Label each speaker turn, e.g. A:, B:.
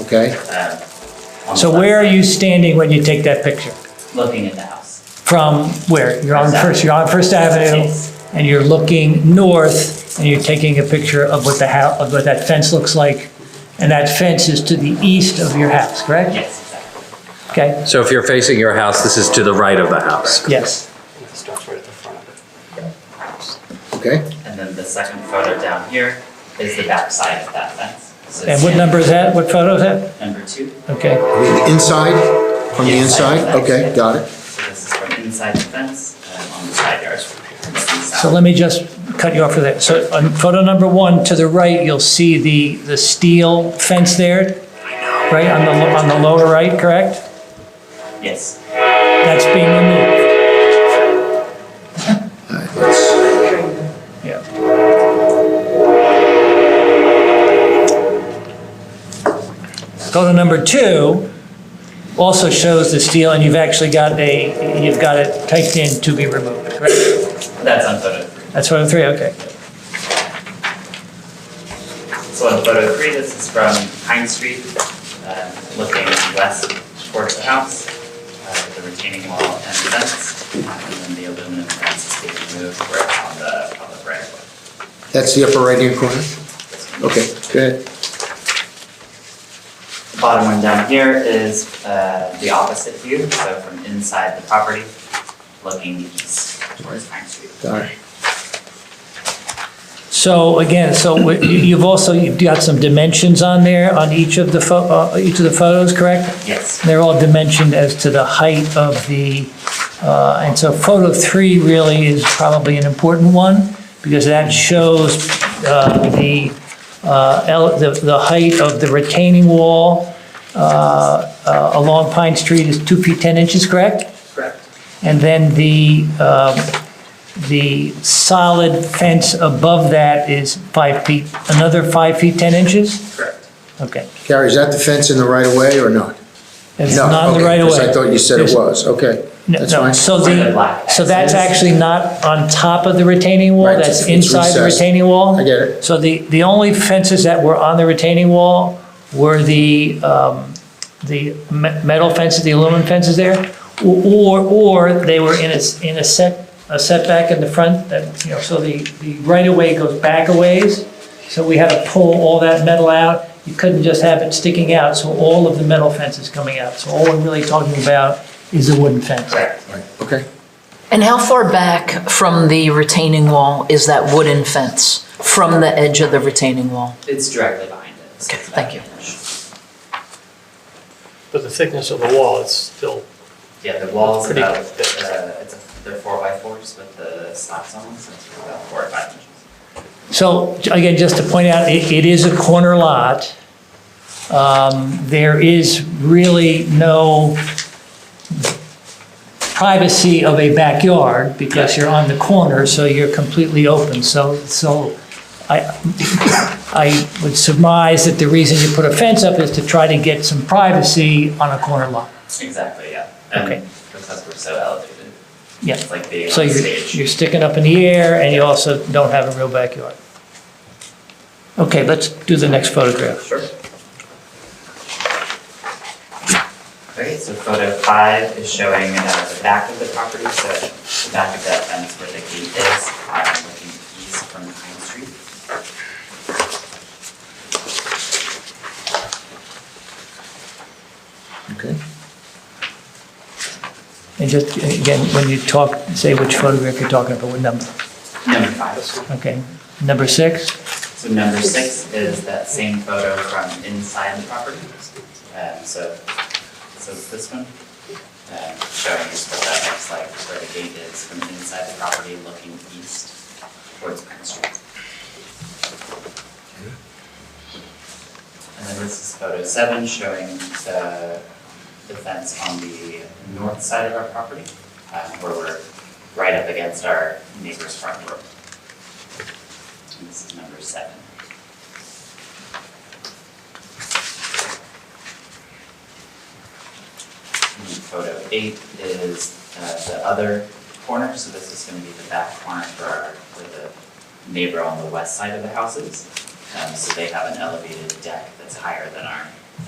A: okay?
B: uh, on the
C: So
B: left
C: where are
B: side,
C: you standing when you take that picture?
B: Looking at the house.
C: From where? You're on
B: First Avenue.
C: First, you're on First Avenue,
B: Yes.
C: and you're looking north, and you're taking a picture of what the house, of what that fence looks like, and that fence is to the east of your house, correct?
B: Yes, exactly.
C: Okay,
D: So if you're facing your house, this is to the right of the house.
C: yes.
E: It starts right at the front of it.
A: Okay?
B: And then the second photo down here is the back side of that fence. So
C: And what
B: it's
C: number is that? What photo is that?
B: Number two.
C: Okay.
A: The Inside, from the
B: Yeah, side
A: inside?
B: to side.
A: Okay, got it.
B: So this is from inside the fence, and on the side yards from here. It's the
C: So
B: south.
C: let me just cut you off for that. So on photo number one, to the right, you'll see the, the steel fence there, right, on the, lo- on the lower right, correct?
B: Yes.
C: That's being removed.
A: All right, let's-
C: Yeah. Photo number two also shows the steel, and you've actually got a, you've got it typed in to be removed, correct?
B: That's on photo three.
C: That's photo three, okay.
B: So on photo three, this is from Pine Street, um, looking west towards the house, uh, the retaining wall and fence, and then the aluminum fence is being moved where it's on the public right of
A: That's the upper right-hand corner?
B: way.
A: Okay, go ahead.
B: The Bottom one down here is uh, the opposite view, so from inside the property, looking east towards Pine Street.
A: Got it.
C: So again, so we- you- you've also, you've got some dimensions on there on each of the, pho- uh, each of the photos, correct?
B: Yes,
C: They're all dimensioned as to the height of the, uh, and so photo three really is probably an important one because that shows uh, the, uh, ele- the the height of the retaining wall uh, uh, along Pine Street is two feet 10 inches, correct?
B: correct.
C: And then the, um, the solid fence above that is five feet, another five feet 10 inches?
B: Correct.
C: Okay.
A: Carrie, is that the fence in the right-of-way or not?
C: It's
A: No,
C: not in
A: okay,
C: the right of way.
A: 'cause I thought you said it was, okay.
C: No,
A: That's
C: no.
A: fine.
C: So
B: Like a
C: the,
B: black
C: so that's
B: fence.
C: actually not on top of the retaining wall,
A: Right,
C: that's
A: it's
C: inside the
A: recessed.
C: retaining wall?
A: I get it.
C: So the, the only fences that were on the retaining wall were the, um, the me- metal fences, the aluminum fences there, or, or they were in a, s- in a set, a setback in the front, that, you know, so the, the right-of-way goes back a ways, so we had to pull all that metal out, you couldn't just have it sticking out, so all of the metal fence is coming out, so all we're really talking about is the wooden fence.
B: Correct.
A: Okay,
F: And how far back from the retaining wall is that wooden fence from the edge of the retaining wall?
B: It's directly behind it. so
F: Okay,
B: it's
F: thank
B: about
F: you.
B: an inch.
E: But the thickness of the wall is still
B: Yeah, the walls
E: Pretty
B: about, uh,
E: thick.
B: it's, a- they're four by fours with the slats on them, so it's about four or five inches.
C: So again, just to point out, it, it is a corner lot. Um, There is really no privacy of a backyard because you're on the corner, so you're completely open. So, so I, I would surmise that the reason you put a fence up is to try to get some privacy on a corner lot.
B: Exactly, yeah.
C: Okay.
B: And because we're so elevated,
C: Yeah.
B: it's like being on
C: So you're,
B: stage.
C: you're sticking up in the air and you also don't have a real backyard. Okay, let's do the next photograph.
B: Sure. Okay, so photo five is showing uh, the back of the property, so the back of that fence where the gate is, uh, looking east from Pine Street.
A: okay.
C: And just, again, when you talk, say which photograph you're talking about, what number,
B: Number five.
C: okay? Number six,
B: So number six is that same photo from inside the property. Um, so, so it's this one, um, showing us what that looks like, where the gate is from inside the property looking east towards Pine Street. And then this is photo seven, showing the, the fence on the north side of our property, um, where we're right up against our neighbor's front door. And this is number seven. And then Photo eight is uh, the other corner, so this is gonna be the back corner for our, for the neighbor on the west side of the houses. Um, so they have an elevated deck that's higher than our